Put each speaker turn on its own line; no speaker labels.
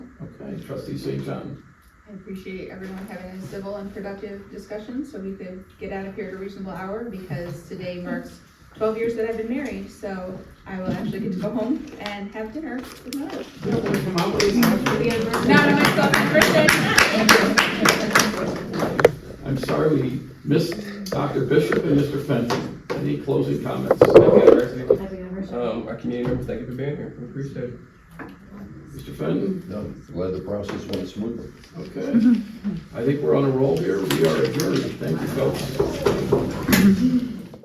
and trustee St. John.
I appreciate everyone having a civil and productive discussion, so we could get out of here at a reasonable hour, because today marks twelve years that I've been married, so I will actually get to go home and have dinner with my wife. Not on myself, my first day.
I'm sorry we missed Dr. Bishop and Mr. Fenton. Any closing comments? Mr.
Happy anniversary.
Um, our community members, thank you for being here, we appreciate it.
Fenton?
No, glad the process went smoothly.
Okay. I think we're on a roll here. We are adjourned. Thank you, folks.